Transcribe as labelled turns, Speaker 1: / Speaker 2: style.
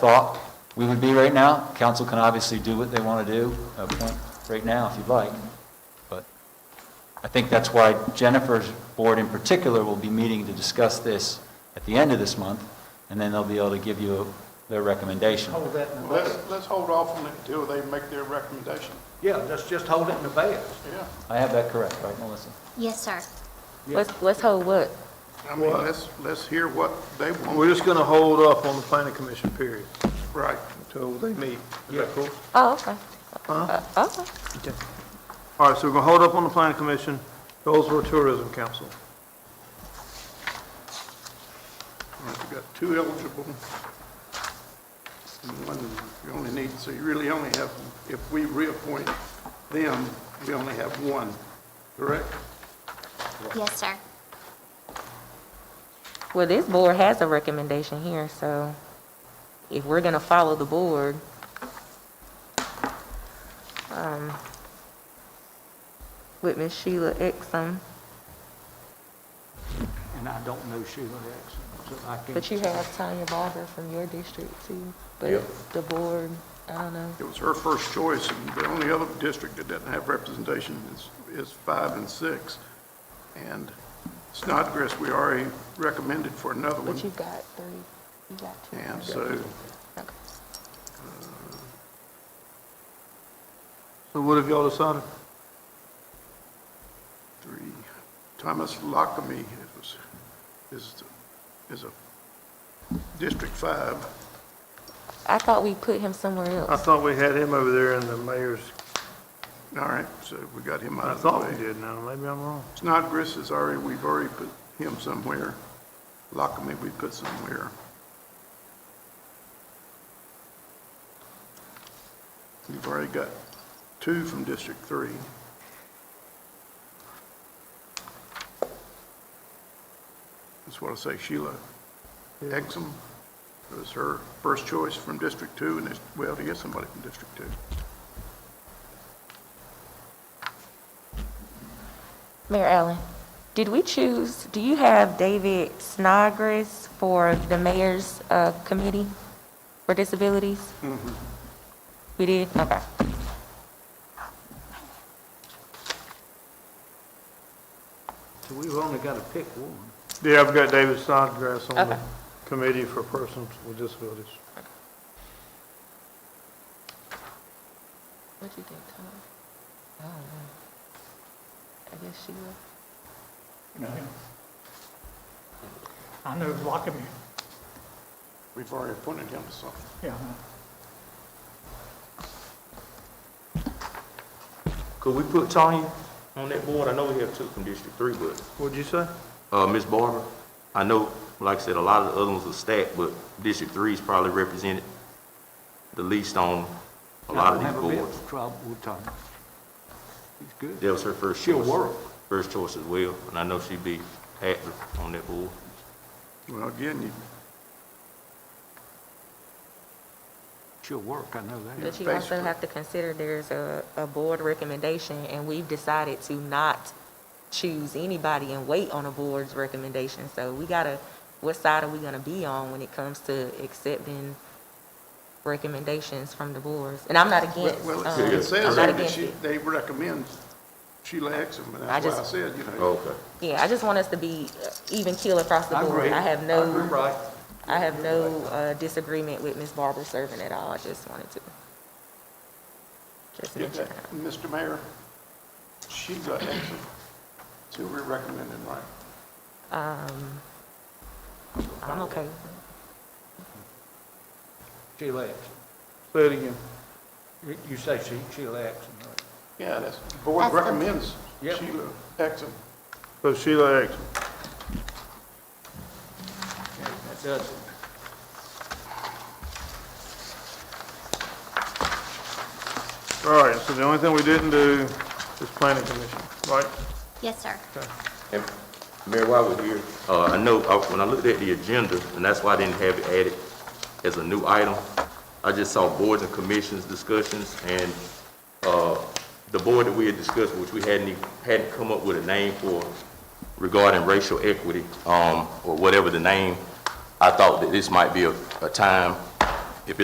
Speaker 1: thought we would be right now. Council can obviously do what they want to do, appoint right now if you'd like. But I think that's why Jennifer's board in particular will be meeting to discuss this at the end of this month, and then they'll be able to give you their recommendation.
Speaker 2: Hold that in the
Speaker 3: Let's,
Speaker 2: bag.
Speaker 3: let's hold off on it until they make their recommendation,
Speaker 2: Yeah, let's just hold it in the bag.
Speaker 3: yeah.
Speaker 1: I have that correct, right, Melissa?
Speaker 4: Yes, sir.
Speaker 5: Let's, let's hold what?
Speaker 3: I mean, let's, let's hear what they want,
Speaker 6: We're just gonna hold up on the planning commission period
Speaker 3: right.
Speaker 6: until they meet. Is that cool?
Speaker 5: Oh, okay. Uh, Okay.
Speaker 6: All right, so we're gonna hold up on the planning commission, Goldsboro Tourism Council.
Speaker 3: You've got two eligible. And one, you only need, so you really only have, if we reappoint them, we only have one, correct?
Speaker 4: Yes, sir.
Speaker 5: Well, this board has a recommendation here, so if we're gonna follow the board, um, with Miss Sheila Exum,
Speaker 2: And I don't know Sheila Exum, so I can't.
Speaker 5: but you have Tanya Barber from your district too, but the board, I don't know.
Speaker 3: It was her first choice, and the only other district that doesn't have representation is, is five and six. And Snodgrass, we already recommended for another
Speaker 5: But you
Speaker 3: one,
Speaker 5: got three, you got two.
Speaker 3: and so
Speaker 5: Okay.
Speaker 6: So what have y'all decided?
Speaker 3: three. Thomas Lockamy is, is, is a District Five.
Speaker 5: I thought we put him somewhere
Speaker 6: I
Speaker 5: else.
Speaker 6: thought we had him over there in the mayor's,
Speaker 3: All right, so we got him
Speaker 6: I
Speaker 3: out of the
Speaker 6: thought we
Speaker 3: way.
Speaker 6: did now, maybe I'm wrong.
Speaker 3: Snodgrass is already, we've already put him somewhere. Lockamy, we put somewhere. We've already got two from District Three. That's what I say, Sheila Exum was her first choice from District Two, and it's, well, to get somebody from District Two.
Speaker 5: Mayor Allen, did we choose, do you have David Snodgrass for the mayor's uh, committee for disabilities? We did, okay.
Speaker 2: So we've only got to pick one.
Speaker 6: Yeah, I've got David Snodgrass on the
Speaker 5: Okay.
Speaker 6: committee for persons with disabilities.
Speaker 5: What you think, Tom? I don't know. I guess she will.
Speaker 7: I know Lockaby,
Speaker 3: We've already appointed him to something.
Speaker 7: yeah.
Speaker 8: Could we put Tanya on that board? I know we have two from District Three, but,
Speaker 6: What'd you say?
Speaker 8: uh, Ms. Barber, I know, like I said, a lot of the other ones are stacked, but District Three is probably represented the least on a lot of
Speaker 2: I
Speaker 8: these
Speaker 2: don't have a bit
Speaker 8: boards.
Speaker 2: of trouble with Tanya. She's good.
Speaker 8: That was her first
Speaker 2: She'll
Speaker 8: choice.
Speaker 2: work.
Speaker 8: First choice as well, and I know she'd be active on that board.
Speaker 3: Well, again, you
Speaker 2: She'll work, I know that.
Speaker 5: But you also
Speaker 3: Facebook.
Speaker 5: have to consider there's a, a board recommendation, and we've decided to not choose anybody and wait on a board's recommendation. So we gotta, what side are we gonna be on when it comes to accepting recommendations from the boards? And I'm not against, um,
Speaker 3: Well, it
Speaker 5: I'm
Speaker 3: says there
Speaker 5: not
Speaker 3: that
Speaker 5: against
Speaker 3: she,
Speaker 5: it.
Speaker 3: they recommend Sheila Exum, and
Speaker 5: I
Speaker 3: that's why I
Speaker 5: just-
Speaker 3: said, you know,
Speaker 8: Okay.
Speaker 5: Yeah, I just want us to be uh, even keel across the
Speaker 2: I
Speaker 5: board.
Speaker 2: agree.
Speaker 5: I have no,
Speaker 2: right.
Speaker 5: I have no uh, disagreement with Ms. Barber serving at all. I just wanted to. Just
Speaker 3: get
Speaker 5: mention
Speaker 3: that,
Speaker 5: that.
Speaker 3: Mr. Mayor, Sheila Exum, that's who we're recommending, right?
Speaker 5: Um, I'm okay. with it.
Speaker 2: Sheila Exum.
Speaker 6: Say it again.
Speaker 2: You- You say she, Sheila Exum, right?
Speaker 3: Yeah, that's, the board
Speaker 4: That's what-
Speaker 3: recommends
Speaker 2: Yep.
Speaker 3: Sheila Exum.
Speaker 6: So Sheila Exum.
Speaker 2: That does it.
Speaker 6: All right, so the only thing we didn't do is planning commission, right?
Speaker 4: Yes, sir.
Speaker 8: And Mayor, while we're here, uh, I know, uh, when I looked at the agenda, and that's why I didn't have it added as a new item, I just saw boards and commissions discussions, and, uh, the board that we had discussed, which we hadn't, even- hadn't come up with a name for regarding racial equity, um, or whatever the name, I thought that this might be a, a time